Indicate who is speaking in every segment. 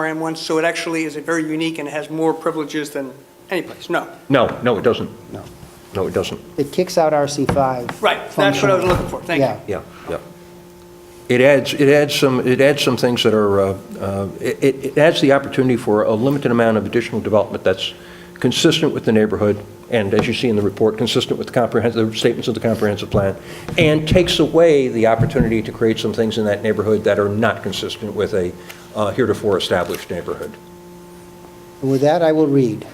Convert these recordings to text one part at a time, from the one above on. Speaker 1: RM one, so it actually is a very unique and has more privileges than any place, no.
Speaker 2: No, no, it doesn't.
Speaker 3: No.
Speaker 2: No, it doesn't.
Speaker 3: It kicks out RC5.
Speaker 1: Right, that's what I was looking for, thank you.
Speaker 3: Yeah.
Speaker 2: Yeah, yeah. It adds, it adds some, it adds some things that are, uh, uh, it- it it adds the opportunity for a limited amount of additional development that's consistent with the neighborhood, and as you see in the report, consistent with the comprehensive, the statements of the comprehensive plan, and takes away the opportunity to create some things in that neighborhood that are not consistent with a uh, heretofore established neighborhood.
Speaker 3: And With that, I will read.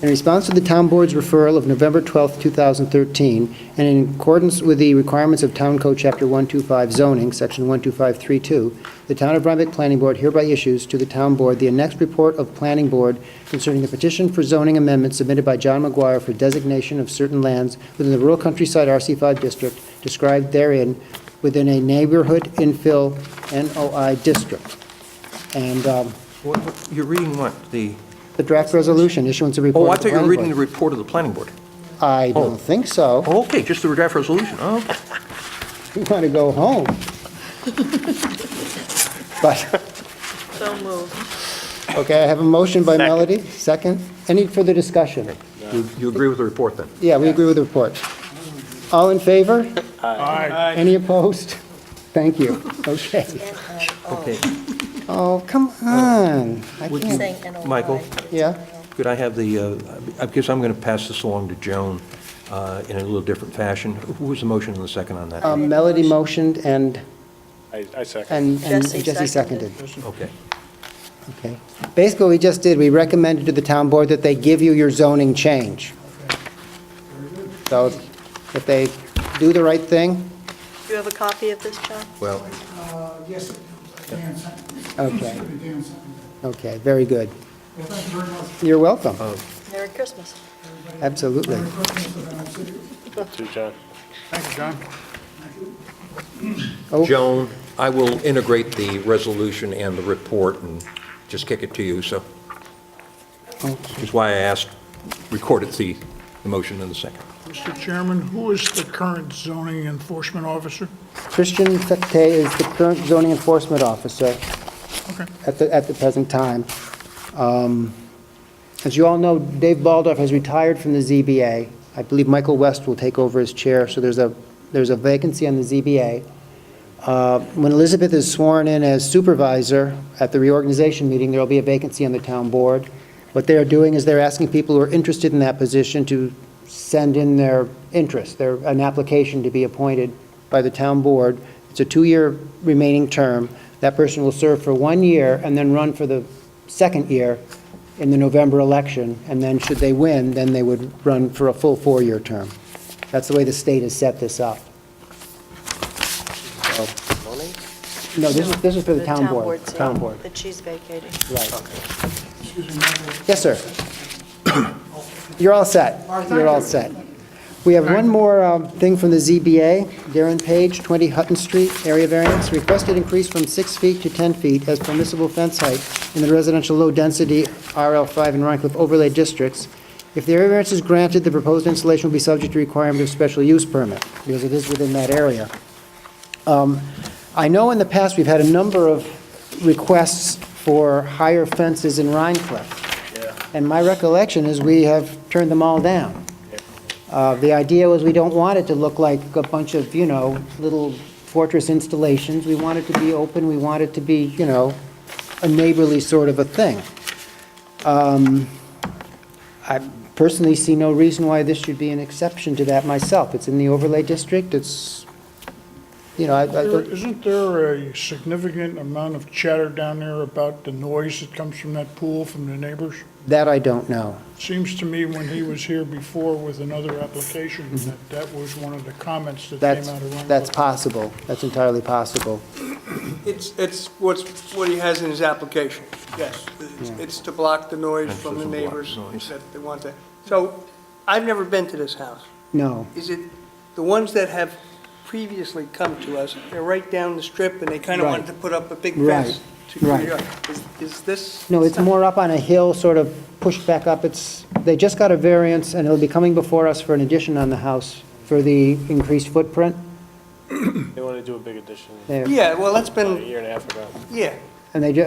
Speaker 3: In response to the Town Board's referral of November 12, 2013, and in accordance with the requirements of Town Code Chapter 125 zoning, Section 12532, the Town of Rhinebeck Planning Board hereby issues to the Town Board the annexed report of Planning Board concerning the petition for zoning amendment submitted by John McGuire for designation of certain lands within the rural countryside RC5 district described therein within a neighborhood infill NOI district. And um,
Speaker 2: You're reading what? The,
Speaker 3: the draft resolution, issuance of report.
Speaker 2: oh, I
Speaker 3: of the
Speaker 2: thought you were
Speaker 3: planning
Speaker 2: reading the
Speaker 3: board.
Speaker 2: report of the planning board.
Speaker 3: I
Speaker 2: oh.
Speaker 3: don't think so.
Speaker 2: Oh, okay, just the draft resolution, oh, okay.
Speaker 3: We want to go home. But,
Speaker 4: So moved.
Speaker 3: okay, I have a motion by Melody, second. Any further discussion?
Speaker 2: You- You agree with the report, then?
Speaker 3: Yeah, we agree with the report. All in favor? Aye. Any opposed? Thank you. Okay.
Speaker 2: Okay.
Speaker 3: Oh, come on. I
Speaker 2: Would
Speaker 3: can't-
Speaker 4: Saying NOI.
Speaker 2: Michael?
Speaker 3: Yeah?
Speaker 2: Could I have the, uh, I guess I'm going to pass this along to Joan uh, in a little different fashion. Who was the motion and the second on that?
Speaker 3: Um, Melody motioned and,
Speaker 5: I, I second.
Speaker 3: and and
Speaker 4: Jesse
Speaker 3: Jesse seconded.
Speaker 4: seconded.
Speaker 2: Okay.
Speaker 3: Okay. Basically, what we just did, we recommended to the town board that they give you your zoning change. So if they do the right thing,
Speaker 4: Do you have a copy of this, John?
Speaker 2: Well,
Speaker 6: Uh, Yes, Dan sent
Speaker 3: okay,
Speaker 6: Dan sent me
Speaker 3: okay, very good.
Speaker 6: Well, thank you very much.
Speaker 3: You're welcome,
Speaker 4: Merry Christmas.
Speaker 3: absolutely.
Speaker 6: Merry Christmas, and I'll see you.
Speaker 5: To John.
Speaker 6: Thank you, John.
Speaker 3: Oh,
Speaker 2: Joan, I will integrate the resolution and the report and just kick it to you, so.
Speaker 3: Oh.
Speaker 2: Which is why I asked, recorded the the motion and the second.
Speaker 6: Mr. Chairman, who is the current zoning enforcement officer?
Speaker 3: Christian Fekte is the current zoning enforcement officer
Speaker 6: Okay.
Speaker 3: at the, at the present time. Um, As you all know, Dave Baldorf has retired from the ZBA. I believe Michael West will take over as chair, so there's a, there's a vacancy on the ZBA. Uh, When Elizabeth is sworn in as supervisor at the reorganization meeting, there'll be a vacancy on the town board. What they're doing is they're asking people who are interested in that position to send in their interest, their, an application to be appointed by the town board. It's a two-year remaining term. That person will serve for one year and then run for the second year in the November election, and then should they win, then they would run for a full four-year term. That's the way the state has set this up. So- No, this is, this is for the town board.
Speaker 4: yeah,
Speaker 3: Town board,
Speaker 4: That she's vacating.
Speaker 3: right.
Speaker 6: Excuse me, Michael.
Speaker 3: Yes, sir. You're all set. You're all set. We have one more um, thing from the ZBA. Darren Page, 20 Hutton Street, area variance, requested increase from 6 feet to 10 feet as permissible fence height in the residential low-density RL5 and Rhine Cliff overlay districts. If the area variance is granted, the proposed installation will be subject to requirement of special use permit, because it is within that area. I know in the past, we've had a number of requests for higher fences in Rhine Cliff. And my recollection is we have turned them all down. Uh, The idea was we don't want it to look like a bunch of, you know, little fortress installations. We want it to be open, we want it to be, you know, a neighborly sort of a thing. Um, I personally see no reason why this should be an exception to that myself. It's in the overlay district, it's, you know, I... I
Speaker 6: There-
Speaker 3: don't-
Speaker 6: Isn't there a significant amount of chatter down there about the noise that comes from that pool from the neighbors?
Speaker 3: That I don't know.
Speaker 6: Seems to me when he was here before with another application, that that was one of the comments that came
Speaker 3: That's,
Speaker 6: out of Rhine.
Speaker 3: that's possible. That's entirely possible.
Speaker 1: It's, it's what's, what he has in his application, yes. It's- It's to block the noise from the
Speaker 2: Fences and block
Speaker 1: neighbors,
Speaker 2: noise.
Speaker 1: that they want that. So, I've never been to this house.
Speaker 3: No.
Speaker 1: Is it, the ones that have previously come to us, they're right down the strip, and they kind of
Speaker 3: Right.
Speaker 1: wanted to put up a big
Speaker 3: Right.
Speaker 1: fence to clear it
Speaker 3: Right.
Speaker 1: up. Is- Is this?
Speaker 3: No, it's more up on a hill, sort of pushed back up. It's, they just got a variance, and it'll be coming before us for an addition on the house for the increased footprint.
Speaker 7: They want to do a big addition
Speaker 3: There.
Speaker 1: Yeah, well, that's
Speaker 7: a
Speaker 1: been,
Speaker 7: year and a half ago.
Speaker 1: yeah.
Speaker 3: And they do,